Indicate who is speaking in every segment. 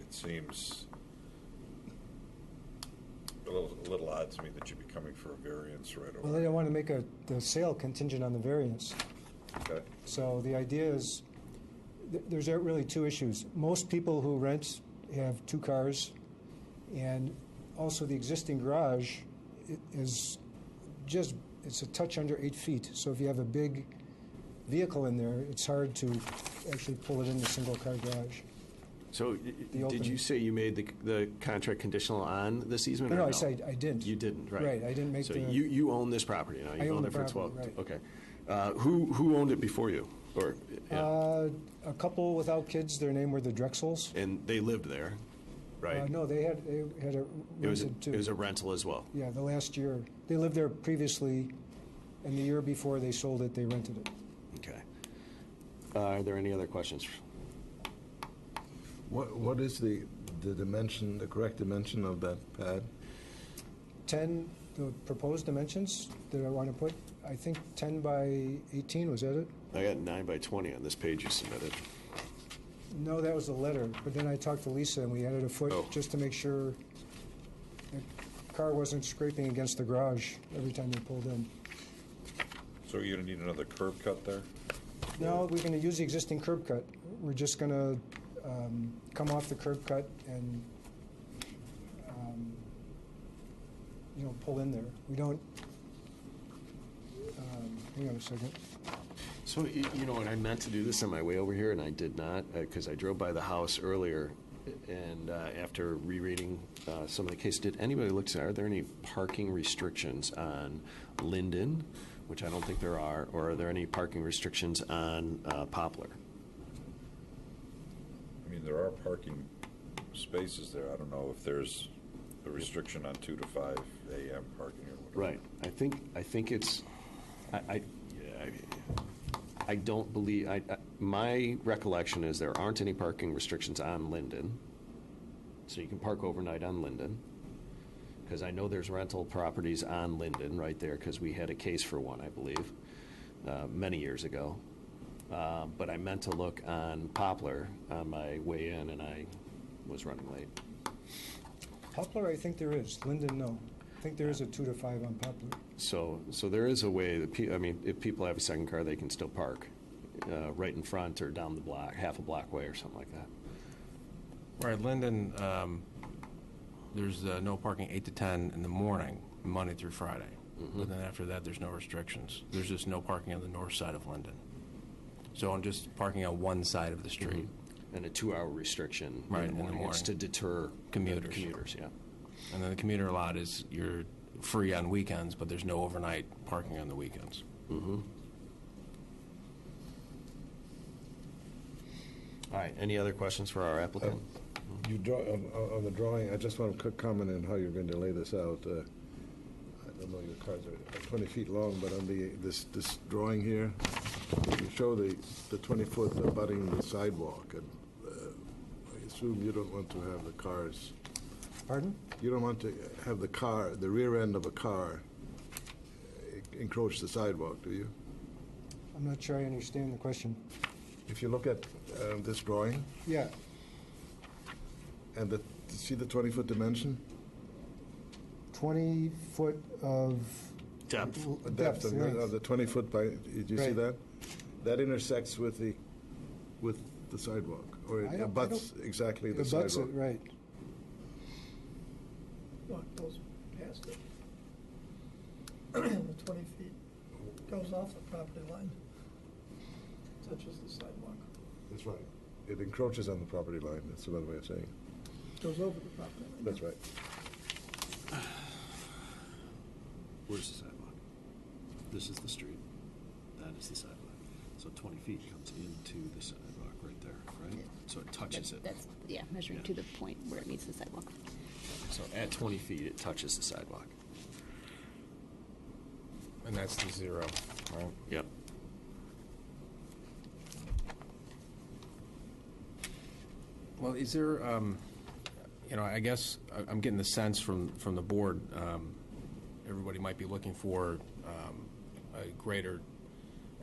Speaker 1: it seems a little, a little odd to me that you'd be coming for a variance right
Speaker 2: Well, they
Speaker 1: away.
Speaker 2: don't want to make a, the sale contingent on the variance.
Speaker 1: Okay.
Speaker 2: So the idea is, th- there's really two issues. Most people who rent have two cars, and also the existing garage i- is just, it's a touch under eight feet. So if you have a big vehicle in there, it's hard to actually pull it in the single-car garage.
Speaker 3: So y- y- did
Speaker 2: opening.
Speaker 3: you say you made the, the contract conditional on this easement?
Speaker 2: No,
Speaker 3: or
Speaker 2: no, I said I didn't.
Speaker 3: You didn't, right.
Speaker 2: Right, I didn't make
Speaker 3: So
Speaker 2: the-
Speaker 3: you, you own this property now?
Speaker 2: I
Speaker 3: You've
Speaker 2: own
Speaker 3: owned
Speaker 2: the
Speaker 3: it for 12
Speaker 2: property,
Speaker 3: Okay. Uh, Who, who owned it before you? Or, yeah,
Speaker 2: Uh, A couple without kids, their name were the Drexels.
Speaker 3: and they lived there,
Speaker 2: Uh,
Speaker 3: right?
Speaker 2: No, they had, they had a
Speaker 3: It was,
Speaker 2: rented too.
Speaker 3: it was a rental as well?
Speaker 2: Yeah, the last year. They lived there previously, and the year before they sold it, they rented it.
Speaker 3: Okay. Uh, Are there any other questions?
Speaker 4: What, what is the, the dimension, the correct dimension of that pad?
Speaker 2: 10, the proposed dimensions that I want to put, I think 10 by 18, was that it?
Speaker 3: I got nine by 20 on this page you submitted.
Speaker 2: No, that was the letter, but then I talked to Lisa, and we added a foot
Speaker 3: Oh.
Speaker 2: just to make sure the car wasn't scraping against the garage every time they pulled in.
Speaker 1: So you're gonna need another curb cut there?
Speaker 2: No, we're going to use the existing curb cut. We're just going to come off the curb cut and, um, you know, pull in there. We don't, um, hang on a second.
Speaker 3: So, y- you know what, I meant to do this on my way over here, and I did not, because I drove by the house earlier, and uh, after rereading uh, some of the case, did anybody look, to- are there any parking restrictions on Linden, which I don't think there are, or are there any parking restrictions on uh, Poplar?
Speaker 1: I mean, there are parking spaces there. I don't know if there's a restriction on two to five AM parking or whatever.
Speaker 3: Right. I think, I think it's, I, I, yeah, I- I don't believe, I, I- my recollection is there aren't any parking restrictions on Linden. So you can park overnight on Linden. Because I know there's rental properties on Linden right there, because we had a case for one, I believe, uh, many years ago. Uh, But I meant to look on Poplar on my way in, and I was running late.
Speaker 2: Poplar, I think there is. Linden, no. I think there is a two to five on Poplar.
Speaker 3: So, so there is a way that, pe- I mean, if people have a second car, they can still park uh, right in front or down the block, half a block way or something like that.
Speaker 5: Right, Linden, um, there's uh, no parking 8 to 10 in the morning, Monday through Friday. But then after that, there's no restrictions. There's just no parking on the north side of Linden. So I'm just parking on one side of the street.
Speaker 3: And a two-hour restriction
Speaker 5: Right,
Speaker 3: in the morning. It's
Speaker 5: morning.
Speaker 3: to deter
Speaker 5: Commuters.
Speaker 3: Commuters, yeah.
Speaker 5: And then the commuter lot is, you're free on weekends, but there's no overnight parking on the weekends.
Speaker 3: All right, any other questions for our applicant?
Speaker 4: You draw, on, on- on the drawing, I just want a quick comment on how you're going to lay this out. Uh, I don't know, your cards are 20 feet long, but on the, this, this drawing here, you show the, the 20-foot abutting the sidewalk, and uh, I assume you don't want to have the cars,
Speaker 2: Pardon?
Speaker 4: you don't want to have the car, the rear end of a car uh, encroach the sidewalk, do you?
Speaker 2: I'm not sure I understand the question.
Speaker 4: If you look at uh, this drawing,
Speaker 2: Yeah,
Speaker 4: and the, see the 20-foot dimension?
Speaker 2: 20 foot of...
Speaker 3: Depth.
Speaker 2: l-
Speaker 4: The
Speaker 2: Depth,
Speaker 4: Depth of
Speaker 2: right.
Speaker 4: the- of the 20-foot by, did you see
Speaker 2: Right.
Speaker 4: that? That intersects with the, with the sidewalk,
Speaker 2: I
Speaker 4: or it
Speaker 2: don't- I
Speaker 4: abuts exactly the
Speaker 2: It butts it,
Speaker 4: sidewalk.
Speaker 2: right.
Speaker 6: No, it goes past it. The twenty feet goes off the property line, touches the sidewalk,
Speaker 4: That's right. It encroaches on the property line, that's another way of saying it.
Speaker 6: goes over the property line.
Speaker 4: That's right.
Speaker 3: Where's the sidewalk? This is the street. That is the sidewalk. So 20 feet comes into the sidewalk right there, right? So it touches it.
Speaker 7: That's, yeah, measuring to the point where it meets the sidewalk.
Speaker 3: So at 20 feet, it touches the sidewalk.
Speaker 5: And that's the zero. Right.
Speaker 3: Yep.
Speaker 5: Well, is there, um, you know, I guess I- I'm getting the sense from, from the board, um, everybody might be looking for um, a greater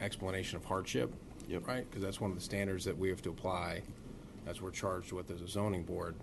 Speaker 5: explanation of hardship.
Speaker 3: Yep.
Speaker 5: Right? Because that's one of the standards that we have to apply, as we're charged with as a zoning board.